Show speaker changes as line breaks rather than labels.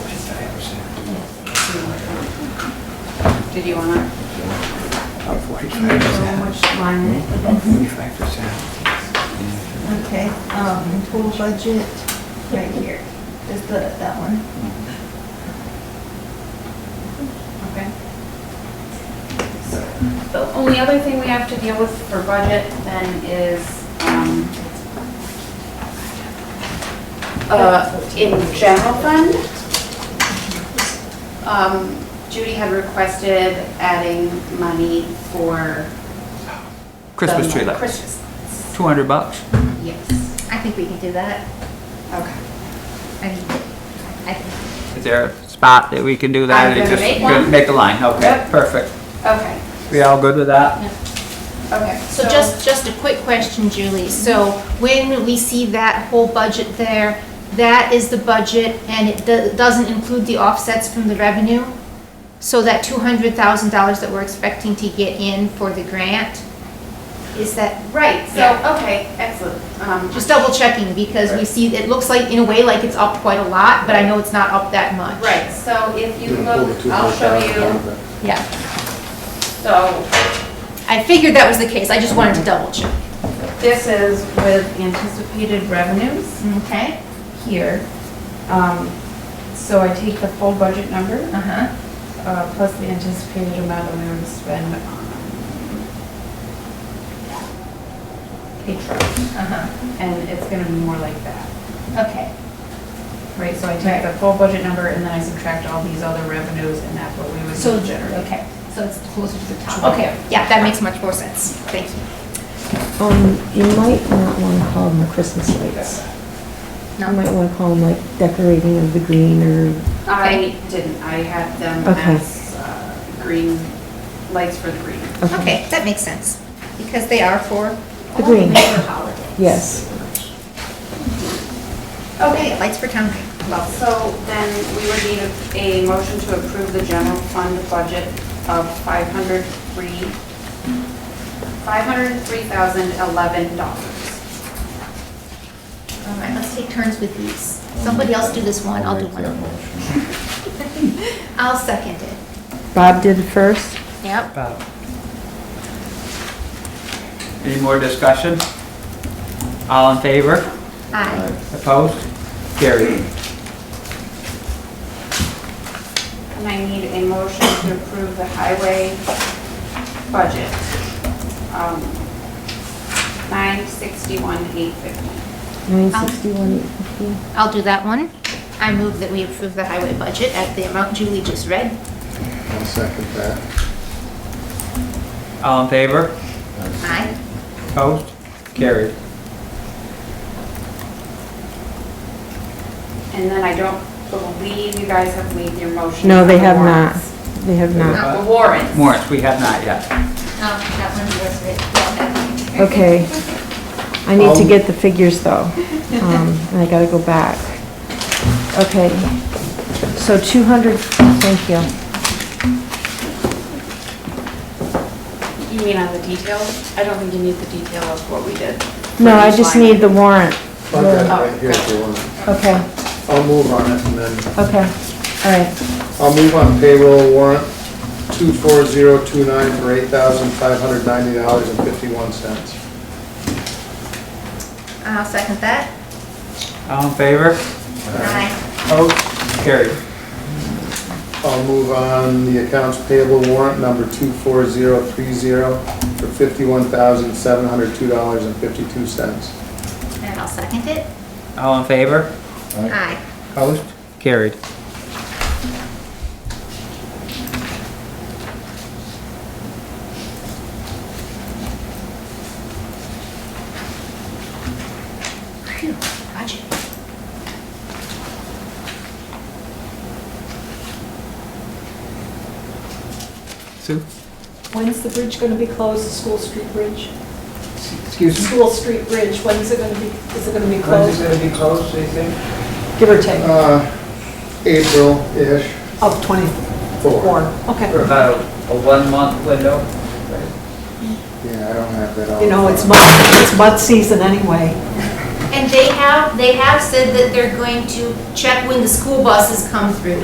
Did you wanna?
About forty-five
So
percent,
much line.
about
Hmm?
forty-five percent.
Okay, um, total budget, right here, is the, that one.
Okay. The only other thing we have to deal with for budget then is, um, uh, in general fund, um, Judy had requested adding money for. the
Christmas tree lights,
Christmas,
two hundred bucks.
yes,
I think we can do that.
okay.
I mean, I think.
Is there a spot that we can do that?
I'm
It
gonna
just-
make one.
Make a line, okay,
Yep.
perfect.
Okay,
We all good with that?
okay.
So just, just a quick question, Julie. So when we see that whole budget there, that is the budget and it do- doesn't include the offsets from the revenue? So that two hundred thousand dollars that we're expecting to get in for the grant, is that,
Right, so,
Yeah.
okay, excellent. Um,
just double checking because we see, it looks like, in a way, like it's up quite a lot, but I know it's not up that much.
Right, so if you look, I'll show you,
Yeah,
so
I figured that was the case. I just wanted to double check.
this is with anticipated revenues
Okay,
here. Um, So I take the full budget number,
uh-huh,
uh, plus the anticipated amount that we would spend on patrons,
uh-huh,
and it's gonna be more like that,
okay.
right? So I take the full budget number and then I subtract all these other revenues and that's what we
So,
would generate.
okay, so it's closer to the top. Okay, yeah, that makes much more sense. Thank you.
Um, you might not want to call them Christmas lights. You
No.
might want to call them like decorating of the green or,
I didn't, I had them
Okay.
as uh, green, lights for the green.
Okay, that makes sense, because they are for
The green.
all major holidays.
yes.
Okay, lights for town, love.
So then we would need a a motion to approve the general fund budget of 503, $503,011.
All right, let's take turns with these. Somebody else do this one, I'll do one. I'll second it.
Bob did it first.
Yep.
Any more discussion? All in favor?
Aye.
Opposed? Carried.
And I need a motion to approve the highway budget. um, 961,850.
Nine
Um,
sixty-one, eight fifty.
I'll do that one. I move that we approve the highway budget at the amount Julie just read.
I'll second that.
All in favor?
Aye.
Opposed? Carried.
And then I don't believe you guys have made your motion.
No, they
on the
have not.
warrants.
They have not.
Not the Uh, warrants.
Morris, we have not yet.
Oh, that one was written, yeah, that one.
Okay. I need to get the figures though. Um, and I gotta go back. Okay. So two hundred, thank you.
You mean on the details? I don't think you need the detail of what we did. for
No, I
each
just
line.
need the warrant.
Plug that right here if you want.
Okay,
I'll move on it and then,
okay. All right.
I'll move on payroll warrant two four zero two nine for eight thousand five hundred ninety dollars and fifty-one cents.
I'll second that.
All in favor?
Aye.
Opposed? Carried.
I'll move on the accounts payable warrant number two four zero three zero for fifty-one thousand seven hundred two dollars and fifty-two cents.
And I'll second it.
All in favor?
Aye.
Opposed? Carried.
Phew, budget.
Sue?
When's the bridge going to be closed, the School Street Bridge?
Excuse me?
School Street Bridge, when is it going to be, is it going to be closed?
gonna be closed, do you think?
Give or take,
Uh, April-ish,
of 24,
four.
okay.
For about a one-month window?
Yeah, I don't have that all.
You know, it's mud, it's mud season anyway.
And they have, they have said that they're going to check when the school buses come through.